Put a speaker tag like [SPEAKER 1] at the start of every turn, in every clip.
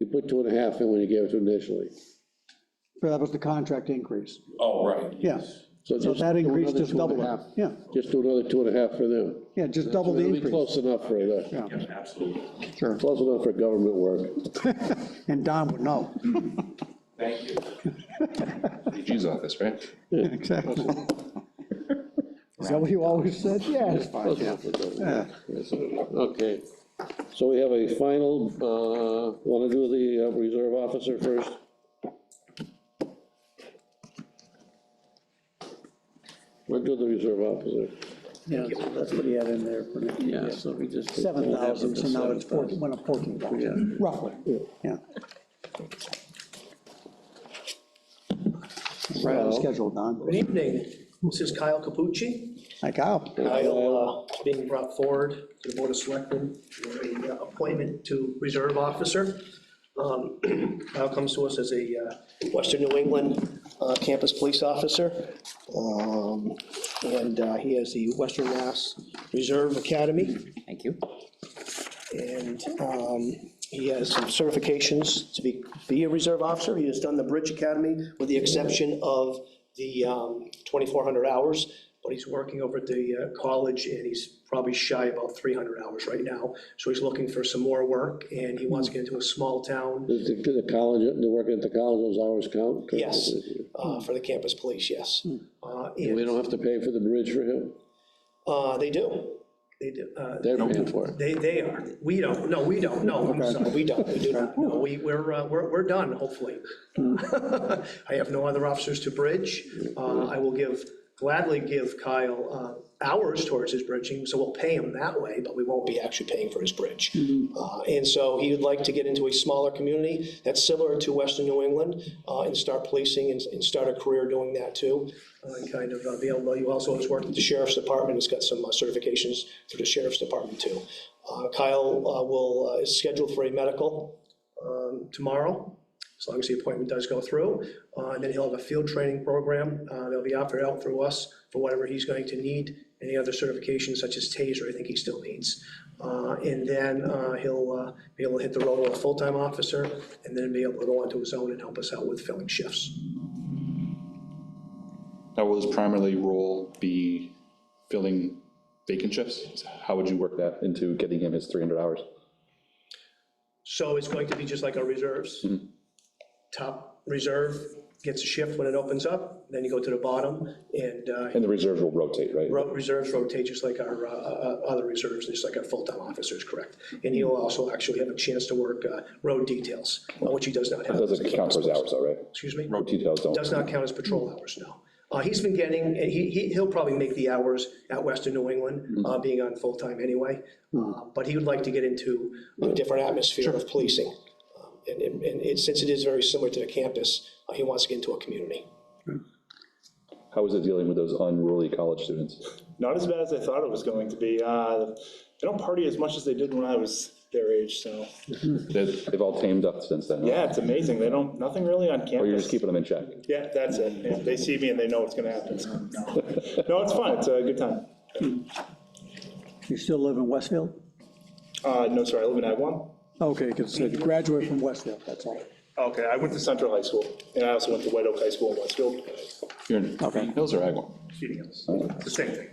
[SPEAKER 1] You put two and a half in when you gave it to initially.
[SPEAKER 2] That was the contract increase.
[SPEAKER 3] Oh, right.
[SPEAKER 2] Yeah. So
[SPEAKER 1] just
[SPEAKER 2] that
[SPEAKER 1] do
[SPEAKER 2] increase
[SPEAKER 1] another
[SPEAKER 2] just
[SPEAKER 1] two and a
[SPEAKER 2] doubled it.
[SPEAKER 1] half.
[SPEAKER 2] Yeah,
[SPEAKER 1] Just do another two and a half for them.
[SPEAKER 2] yeah, just double the
[SPEAKER 1] It'll be
[SPEAKER 2] increase.
[SPEAKER 1] Close enough for that,
[SPEAKER 3] Yeah, absolutely.
[SPEAKER 2] Sure.
[SPEAKER 1] close enough for government work.
[SPEAKER 2] And Don would know.
[SPEAKER 3] Thank you.
[SPEAKER 4] AG's office, right?
[SPEAKER 2] Exactly. Is that what you always said? Yes.
[SPEAKER 1] Close enough for government. Yes. Okay, so we have a final, uh, want to do the uh, reserve officer first? We'll do the reserve officer.
[SPEAKER 2] Yeah, that's what he had in there for me.
[SPEAKER 1] Yeah, so we just.
[SPEAKER 2] Seven thousand, so now it's fourteen, went up fourteen thousand, roughly, yeah. Right on schedule,
[SPEAKER 5] Good
[SPEAKER 2] Don.
[SPEAKER 5] evening, this is Kyle Capucci.
[SPEAKER 2] Hi, Kyle.
[SPEAKER 5] Kyle uh, being brought forward to the Board of Selectmen for a uh, appointment to Reserve Officer. Um, Kyle comes to us as a uh, Western New England uh, Campus Police Officer. Um, And uh, he has the Western Mass Reserve Academy.
[SPEAKER 6] Thank you.
[SPEAKER 5] And um, he has some certifications to be, be a reserve officer. He has done the Bridge Academy with the exception of the um, 2,400 hours. But he's working over at the uh, college and he's probably shy about 300 hours right now. So he's looking for some more work and he wants to get into a small town
[SPEAKER 1] Does the, the college, they're working at the college, those hours count?
[SPEAKER 5] Yes. uh, for the campus police, yes. Uh,
[SPEAKER 1] And We
[SPEAKER 5] And
[SPEAKER 1] don't have to pay for the bridge for him?
[SPEAKER 5] uh, they do, they do. uh,
[SPEAKER 1] They're paying for it.
[SPEAKER 5] They, they are. We don't, no, we don't, no, I'm sorry, we don't, we do not. No, we, we're, uh, we're, we're done, hopefully. I have no other officers to bridge. Uh, I will give, gladly give Kyle uh, hours towards his bridging, so we'll pay him that way, but we won't be actually paying for his bridge. Uh, And so he would like to get into a smaller community that's similar to Western New England uh, and start policing and, and start a career doing that too. Uh, and Kind of uh, be able, he also has worked at the sheriff's department, has got some uh, certifications through the sheriff's department too. Uh, Kyle uh, will, uh, is scheduled for a medical um, tomorrow, as long as the appointment does go through. Uh, And then he'll have a field training program uh, that'll be offered out through us for whatever he's going to need, any other certifications such as TASER, I think he still needs. Uh, And then uh, he'll uh, be able to hit the role of a full-time officer, and then be able to go onto his own and help us out with filling shifts.
[SPEAKER 4] Now, will his primary role be filling vacant shifts? How would you work that into getting him his 300 hours?
[SPEAKER 5] So it's going to be just like our reserves. Top reserve gets a shift when it opens up, then you go to the bottom, and uh,
[SPEAKER 4] And the reserves will rotate, right?
[SPEAKER 5] Ro- Reserves rotate just like our uh, uh, other reserves, just like our full-time officers, correct? And he'll also actually have a chance to work uh, road details, uh, which he does not have. as a
[SPEAKER 4] Doesn't count for his
[SPEAKER 5] campus
[SPEAKER 4] hours, though, right?
[SPEAKER 5] police. Excuse me?
[SPEAKER 4] Road details don't.
[SPEAKER 5] Does not count as patrol hours, no. Uh, He's been getting, and he, he- he'll probably make the hours at Western New
[SPEAKER 4] Mm-hmm.
[SPEAKER 5] England, uh, being on full-time anyway. Uh, But he would like to get into a different atmosphere of policing. Um, And, and- and it- since it is very similar to the campus, uh, he wants to get into a community.
[SPEAKER 4] How is it dealing with those unruly college students?
[SPEAKER 7] not as bad as I thought it was going to be. Uh, They don't party as much as they did when I was their age, so,
[SPEAKER 4] They've they've all tamed up since then, right?
[SPEAKER 7] yeah, it's amazing. They don't, nothing really on
[SPEAKER 4] Or you're just
[SPEAKER 7] campus.
[SPEAKER 4] keeping them in check?
[SPEAKER 7] Yeah, that's it. Yeah, They see me and they know what's gonna happen. so, no. No, it's fun. It's a good time.
[SPEAKER 2] You still live in Westfield?
[SPEAKER 7] Uh, no, sorry, I live in Agawam.
[SPEAKER 2] Okay, because you graduated from Westfield, that's all.
[SPEAKER 7] Okay, I went to Central High School, and I also went to White Oak High School in Westfield.
[SPEAKER 4] You're in Green Hills or Agawam?
[SPEAKER 7] It's the same thing.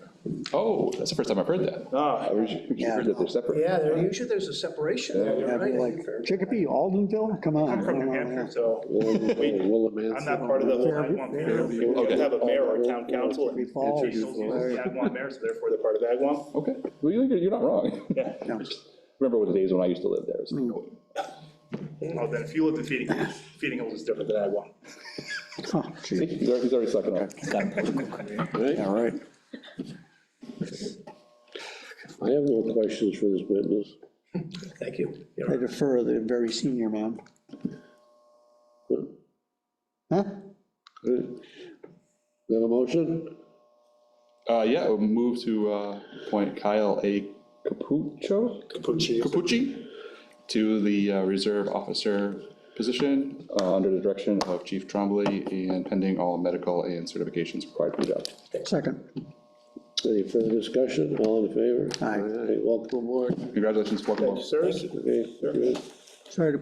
[SPEAKER 4] Oh, that's the first time I've heard that.
[SPEAKER 7] Ah,
[SPEAKER 4] I heard you- you heard that they're separate.
[SPEAKER 5] Yeah, there- usually there's a separation there,
[SPEAKER 2] That'd be
[SPEAKER 5] right?
[SPEAKER 2] like Chicopee, Aldenville, come on.
[SPEAKER 7] I'm from New Hampshire, so I'm not part of the whole Agawam mayor. You have to have a mayor or a town council. and
[SPEAKER 2] Falls.
[SPEAKER 7] Chief uses the Agawam mayor, so therefore they're part of Agawam.
[SPEAKER 4] Okay, well, you're you're not wrong.
[SPEAKER 7] Yeah.
[SPEAKER 4] Remember the days when I used to live there? It's like, oh,
[SPEAKER 7] Oh, then if you lived in Feeding Hills, Feeding Hills is different than I want.
[SPEAKER 2] Oh, gee.
[SPEAKER 4] see, He's already- he's already sucking up.
[SPEAKER 2] All right.
[SPEAKER 1] I have no questions for this witness.
[SPEAKER 5] Thank you. You're
[SPEAKER 2] I defer the very senior man. Huh?
[SPEAKER 1] Is that a motion?
[SPEAKER 4] Uh, yeah, we'll move to uh, appoint Kyle A. Capucho?
[SPEAKER 7] Capucci.
[SPEAKER 4] Capucci to the uh, reserve officer position uh, under the direction of Chief Trombley and pending all medical and certifications required for the job.
[SPEAKER 2] Second.
[SPEAKER 1] Any further discussion? All in favor?
[SPEAKER 2] Aye.
[SPEAKER 1] Welcome aboard.
[SPEAKER 4] Congratulations, welcome aboard.
[SPEAKER 7] Sirs?
[SPEAKER 1] Okay, good.
[SPEAKER 2] Sorry to